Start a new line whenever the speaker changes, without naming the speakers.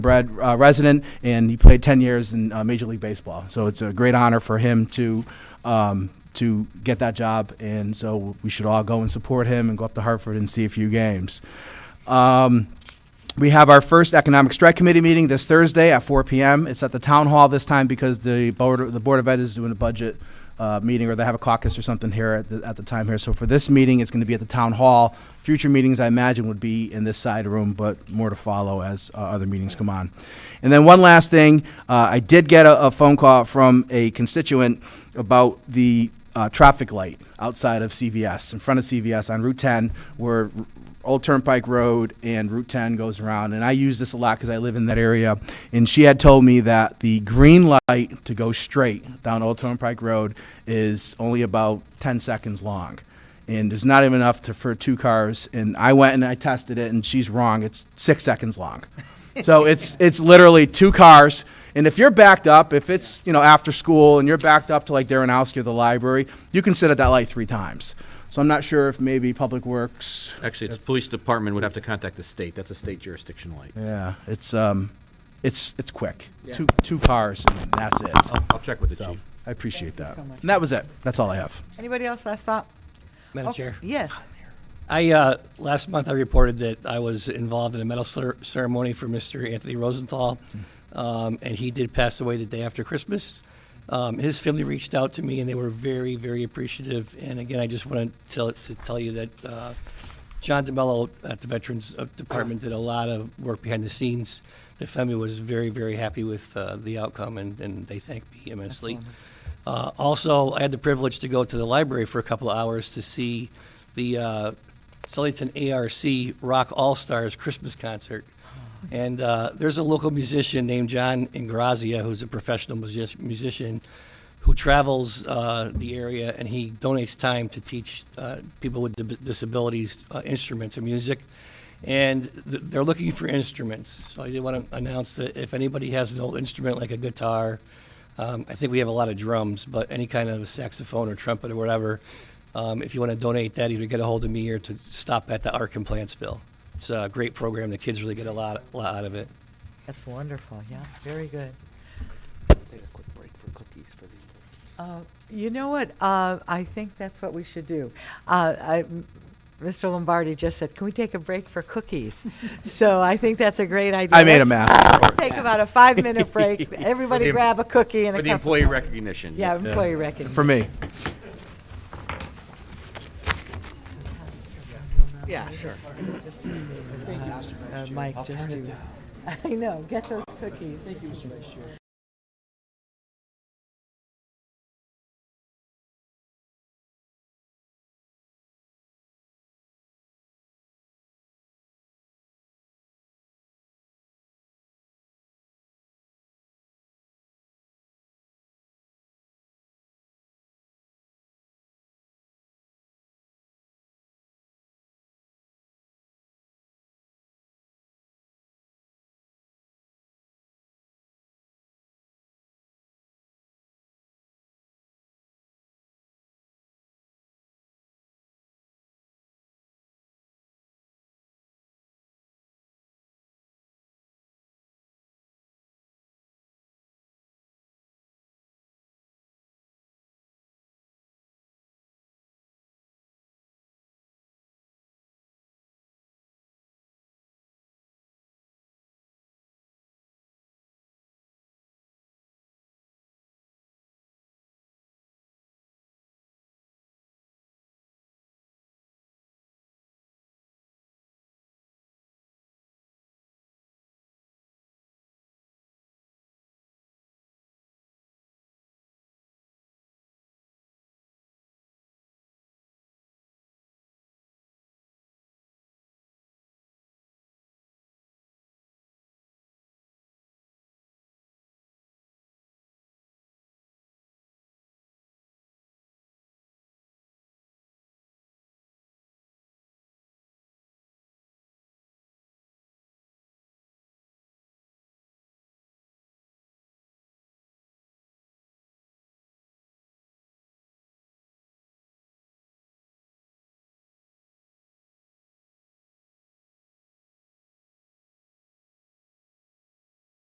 bred uh, resident, and he played 10 years in uh, Major League Baseball. So it's a great honor for him to um, to get that job, and so we should all go and support him and go up to Hartford and see a few games. Um, we have our first Economic Strike Committee meeting this Thursday at 4 p.m. It's at the Town Hall this time because the Board, the Board of Ed is doing a budget uh, meeting, or they have a caucus or something here at the, at the time here. So for this meeting, it's going to be at the Town Hall. Future meetings, I imagine, would be in this side room, but more to follow as uh, other meetings come on. And then one last thing, uh, I did get a, a phone call from a constituent about the uh, traffic light outside of CVS, in front of CVS on Route 10, where Old Turnpike Road and Route 10 goes around. And I use this a lot because I live in that area. And she had told me that the green light to go straight down Old Turnpike Road is only about 10 seconds long. And there's not even enough to, for two cars. And I went and I tested it, and she's wrong. It's six seconds long. So it's, it's literally two cars. And if you're backed up, if it's, you know, after school and you're backed up to like Darrenowski or the library, you can sit at that light three times. So I'm not sure if maybe Public Works,
Actually, it's police department would have to contact the state. That's a state jurisdiction light.
yeah, it's, um, it's, it's quick. Two, two cars and that's it.
I'll check with the
So
chief.
I appreciate that.
Oh. so much.
And that was it. That's all I have.
Anybody else last thought?
Madam
Oh,
Chair,
Yes.
I, uh, last month I reported that I was involved in a medal cer- ceremony for Mr. Anthony Rosenthal, um, and he did pass away the day after Christmas. Um, his family reached out to me, and they were very, very appreciative. And again, I just want to tell, to tell you that uh, John DeMello at the Veterans uh, Department did a lot of work behind the scenes. The family was very, very happy with uh, the outcome, and, and they thanked me immensely. Uh, also, I had the privilege to go to the library for a couple of hours to see the uh, Sullyton ARC Rock All Stars Christmas concert. And uh, there's a local musician named John Ingrazia who's a professional music- musician who travels uh, the area and he donates time to teach uh, people with di- disabilities uh, instruments and music. And th- they're looking for instruments. So I did want to announce that if anybody has an old instrument like a guitar, um, I think we have a lot of drums, but any kind of saxophone or trumpet or whatever, um, if you want to donate that, either get a hold of me or to stop at the Arc in Plantsville. It's a great program. The kids really get a lot, lot out of it.
That's wonderful, yeah, very good. Uh, You know what, uh, I think that's what we should do. Uh, I- Mr. Lombardi just said, can we take a break for cookies? So I think that's a great idea.
I made a
Let's-
mask.
let's Take about a five-minute break,
For
everybody
the-
grab a cookie and
For
a
the
cup.
employee recognition.
Yeah, employee recognition.
For me.
Yeah, sure. Uh, Mike, just do. I know, get those cookies. Thank you, Mr. Vice Chair.